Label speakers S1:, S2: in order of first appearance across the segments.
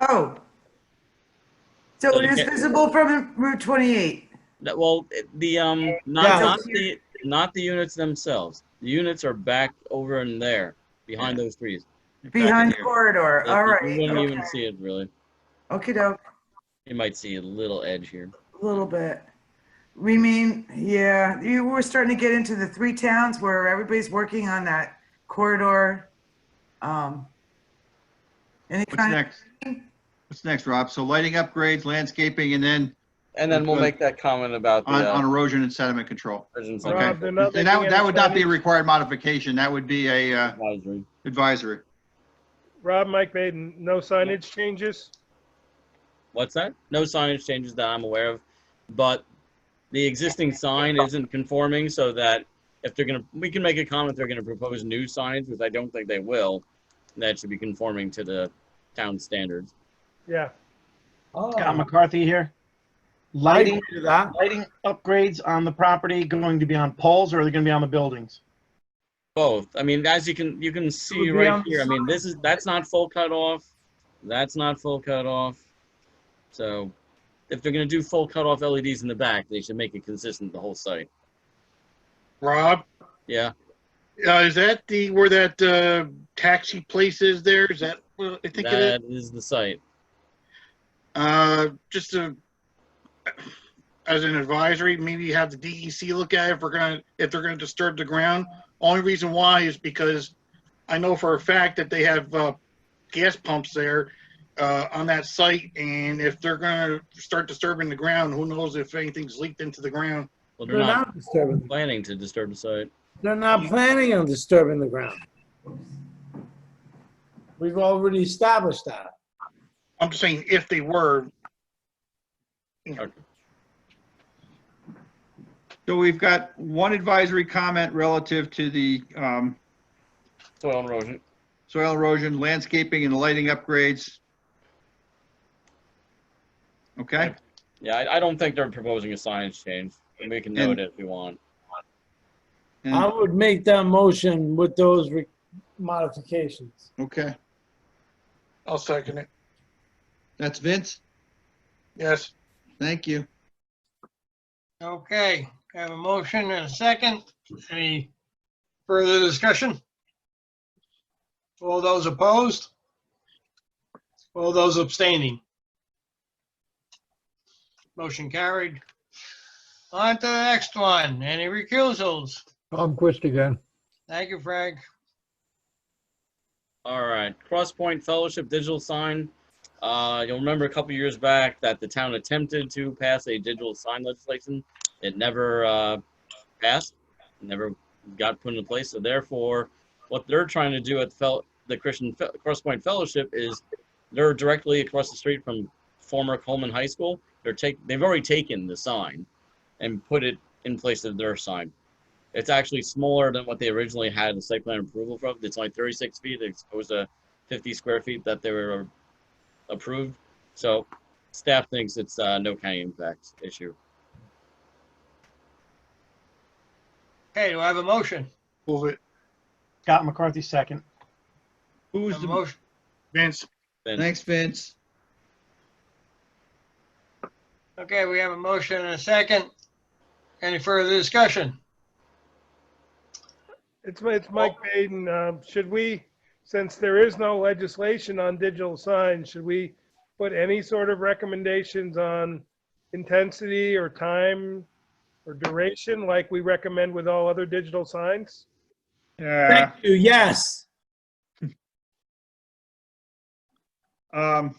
S1: Oh. So
S2: So
S1: it
S2: you
S1: is
S2: can't-
S1: visible from Route 28.
S2: That, well, it- the, um,
S1: Yeah.
S2: not, not the, not the units themselves. The units are back over in there, behind those trees. Back in
S1: Behind the
S2: here.
S1: corridor,
S2: That
S1: all
S2: You wouldn't even
S1: right.
S2: see it really.
S1: Okay, doke,
S2: You might see a little edge here.
S1: a little bit. We mean, yeah, you were starting to get into the three towns where everybody's working on that corridor. Um Any
S3: What's
S1: kind of,
S3: next? What's next, Rob? So lighting upgrades, landscaping, and then
S2: And then we'll
S3: Okay.
S2: make that comment about the,
S3: on, on
S2: uh,
S3: erosion and sediment control.
S2: prisons and
S3: Okay.
S4: Rob,
S3: And
S4: another
S3: that, would-
S4: thing
S3: that would not be a
S4: inside-
S3: required modification. That would be a uh,
S2: advisory.
S3: advisory.
S4: Rob, Mike Baden, no signage changes?
S2: What's that? No signage changes that I'm aware of, but the existing sign isn't conforming so that if they're gonna, we can make a comment, they're gonna propose new signage, which I don't think they will. That should be conforming to the town standards.
S4: Yeah,
S5: Scott McCarthy here. Lighting, lighting upgrades on the property going to be on poles or are they going to be on the buildings?
S2: Both. I mean, as you can, you can see
S5: be on
S2: right
S5: the
S2: here, I mean, this is, that's not full cut off. That's not full cut off. So if they're gonna do full cut off LEDs in the back, they should make it consistent the whole site.
S6: Rob,
S2: Yeah,
S6: uh, is that the, where that, uh, taxi place is there? Is that, uh, I think it is,
S2: that is the site.
S6: uh, just a, as an advisory, maybe have the DEC look at it if we're gonna, if they're gonna disturb the ground. Only reason why is because I know for a fact that they have, uh, gas pumps there, uh, on that site. And if they're gonna start disturbing the ground, who knows if anything's leaked into the ground.
S2: Well,
S7: They're not disturbing,
S2: planning to disturb the site.
S7: they're not planning on disturbing the ground. We've already established that.
S6: I'm just saying if they were,
S3: So we've got one advisory comment relative to the um,
S2: Soil erosion.
S3: soil erosion, landscaping, and lighting upgrades. Okay,
S2: Yeah, I, I don't think they're proposing a signage change. and We can
S3: And-
S2: note it if we want.
S7: I
S3: and-
S7: would make that motion with those re- modifications.
S3: okay.
S6: I'll second it.
S3: That's Vince.
S6: Yes.
S3: Thank you.
S8: Okay, I have a motion and a second. Any further discussion? All those opposed? All those abstaining? Motion carried. On to the next one. Any recusals?
S9: Tom Quist again.
S8: Thank you, Frank.
S2: All right, Crosspoint Fellowship digital sign. Uh, you'll remember a couple years back that the town attempted to pass a digital sign legislation. It never uh, passed, never got put into place. So therefore, what they're trying to do at the, fel- the Christian Fe- Crosspoint Fellowship is they're directly across the street from former Coleman High School. They're take they've already taken the sign and put it in place of their sign. It's actually smaller than what they originally had the site plan approval for. It's only 36 feet as opposed to 50 square feet that they were approved. So staff thinks it's uh, no county impact issue.
S8: Okay, do I have a motion?
S6: Move it.
S5: Scott McCarthy, second.
S3: Who's
S8: A
S3: the,
S8: motion,
S6: Vince.
S2: Then
S3: thanks, Vince.
S8: okay, we have a motion and a second. Any further discussion?
S4: it's, it's Mike Baden. Um, Should we, since there is no legislation on digital signs, should we put any sort of recommendations on intensity or time or duration like we recommend with all other digital signs?
S3: Yeah.
S7: Thank you, yes.
S3: um,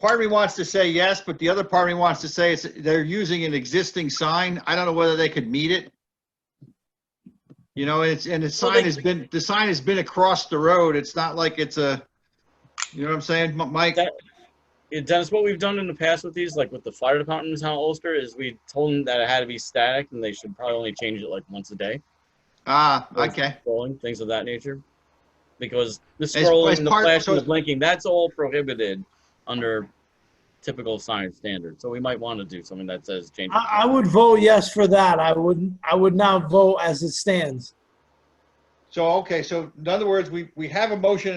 S3: part of me wants to say yes, but the other part of me wants to say it's, they're using an existing sign. I don't know whether they could meet it. You know, it's, and the sign has been, the sign has been across the road. It's not like it's a, you know what I'm saying, M- Mike?
S2: That- Yeah, Dennis, what we've done in the past with these, like with the fire department in town of Ulster, is we told them that it had to be static and they should probably only change it like once a day.
S3: Ah, okay.
S2: Scrolling, things of that nature. Because the
S3: it's
S2: scrolling, the
S3: part-
S2: flashing, the blinking, that's all prohibited under typical sign standards. So we might want to do something that says change. it.
S7: I, I would vote yes for that. I would, I would not vote as it stands.
S3: So, okay, so in other words, we, we have a motion